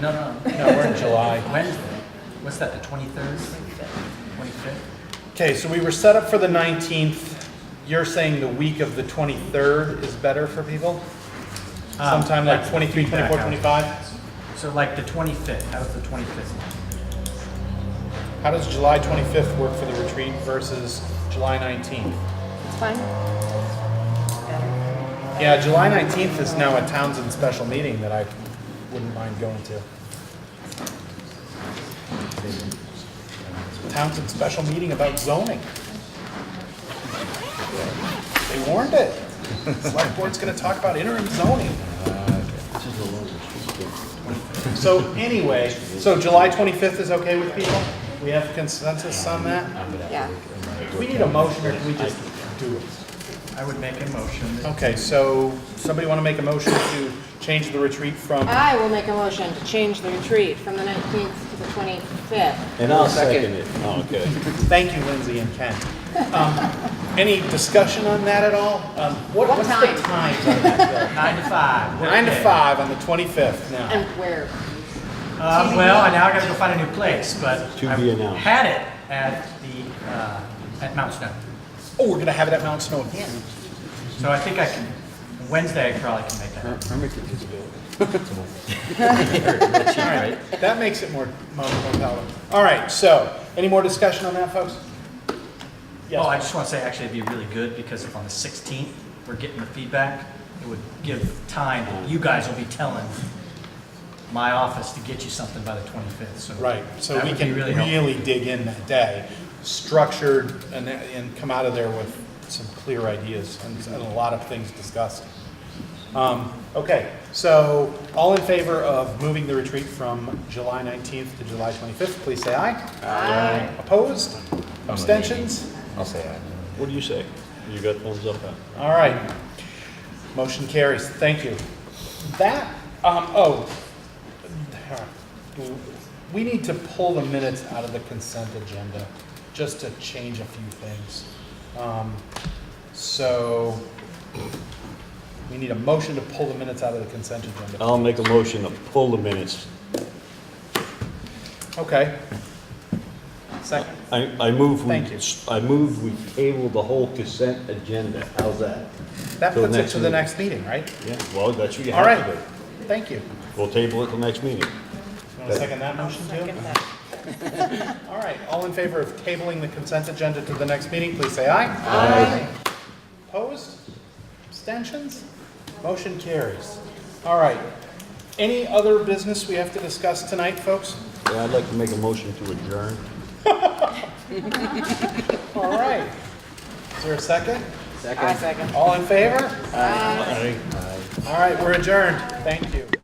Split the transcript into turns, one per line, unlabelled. No, no, no,
No, we're in July.
Wednesday. What's that, the twenty-third? Twenty-fifth?
Okay, so we were set up for the 19th. You're saying the week of the 23rd is better for people? Sometime like 23, 24, 25?
So like the twenty-fifth, that was the twenty-fifth.
How does July 25th work for the retreat versus July 19th?
It's fine.
Yeah, July 19th is now a Townsend special meeting that I wouldn't mind going to. Townsend special meeting about zoning. They warned it. Select board's gonna talk about interim zoning. So anyway, so July 25th is okay with people? We have consensus on that?
Yeah.
Do we need a motion or do we just do it?
I would make a motion that
Okay, so somebody want to make a motion to change the retreat from,
I will make a motion to change the retreat from the 19th to the 25th.
And I'll second it. Oh, good.
thank you Lindsay and Ken. Um, Any discussion on that at all? Um, What,
What
what's the
time?
times on that?
nine to five.
Bill? Nine to
workday.
five on the 25th now.
And where?
Uh, well, and now I gotta go find a new place, but
To
I
be announced.
had it at the, uh, at Mount Snow.
Oh, we're going to have it at Mount Snow again.
So I think I can, Wednesday I probably can make that.
All right, that makes it more, more more palatable. All right, so, any more discussion on that, folks?
Oh, I
Yes,
just want to say, actually, it'd be really good, because if on the 16th, we're getting the feedback, it would give time, you guys will be telling my office to get you something by the 25th, so.
right, so
that
we
would be
can
really helpful.
really dig in that day, structured, and, and come out of there with some clear ideas and and a lot of things discussed. Um, Okay, so all in favor of moving the retreat from July 19th to July 25th, please say aye. Aye. Opposed? Abstentions?
I'll say aye.
What do you say? You got thumbs up, huh?
All right. Motion carries. Thank you. That, um, oh, we need to pull the minutes out of the consent agenda just to change a few things. Um, so we need a motion to pull the minutes out of the consent agenda.
I'll make a motion to pull the minutes.
Okay. Second.
I, I move we.
Thank you.
I move we table the whole consent agenda. How's that?
That
Till
puts it
next
to the
meeting.
next meeting, right?
Yeah, well, that's what you
All
have to
right.
do.
Thank you.
We'll table it till next meeting.
You want to second that motion too? All right, all in favor of tabling the consent agenda to the next meeting, please say aye. Aye. Opposed? Abstentions? Motion carries. All right. Any other business we have to discuss tonight, folks?
Yeah, I'd like to make a motion to adjourn.
All right. Is there a second?
I second.
All in favor?
Aye.
All right, we're adjourned. Thank you.